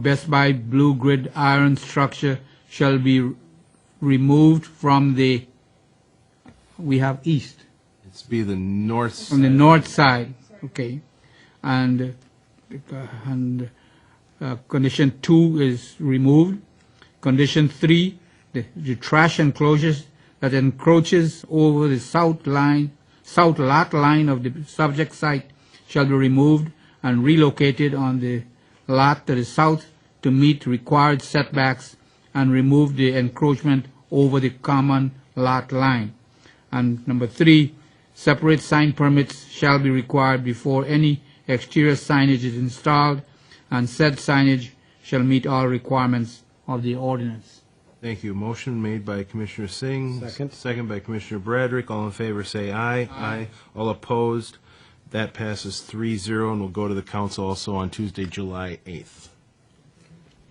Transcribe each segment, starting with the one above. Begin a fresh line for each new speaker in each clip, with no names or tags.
Best Buy blue grid iron structure shall be removed from the, we have east,
It's be the north
from the
side.
north side, okay? And, uh, and uh, condition two is removed. Condition three, the, the trash enclosures that encroaches over the south line, south lot line of the subject site shall be removed and relocated on the lot to the south to meet required setbacks and remove the encroachment over the common lot line. And number three, separate sign permits shall be required before any exterior signage is installed, and said signage shall meet all requirements of the ordinance.
Thank you. Motion made by Commissioner Singh.
Second.
Second by Commissioner Bradrick. All in favor, say aye. Aye. All opposed? That passes three zero, and will go to the council also on Tuesday, July 8th.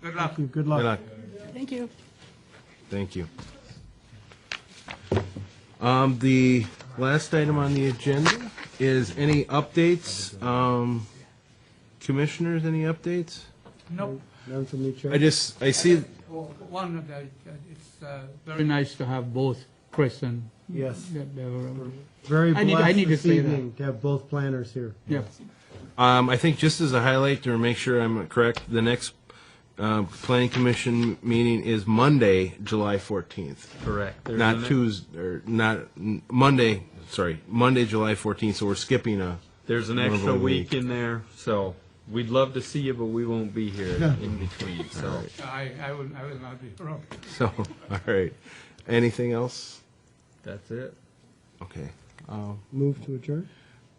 Good luck.
you. Good
Good
luck.
luck.
Thank you.
Thank you. Um, the last item on the agenda is any updates? Um, commissioners, any updates?
Nope,
None from me, Chair.
I just, I see,
one of the, it's uh, very nice to have both Chris and,
Yes.
yeah, they were-
Very
I need- I
blessed
need to
this
say that.
evening to have both planners here.
yeah.
Um, I think just as a highlight to make sure I'm correct, the next um, planning commission meeting is Monday, July 14th.
Correct. There's
Not
an-
Tuesday, or not, n- Monday, sorry, Monday, July 14th, so we're skipping uh, a,
There's an
Another
extra
week.
week in there, so we'd love to see you, but we won't be here in between, so.
I, I will, I will not be wrong.
so, all right. Anything else?
That's it.
Okay. Um,
Move to adjourn?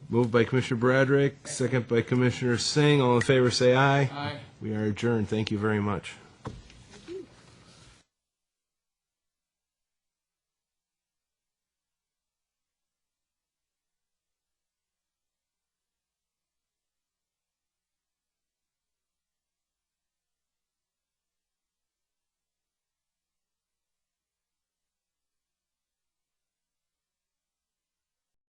Moved by Commissioner Bradrick, second by Commissioner Singh. All in favor, say aye.
Aye.
We are adjourned. Thank you very much.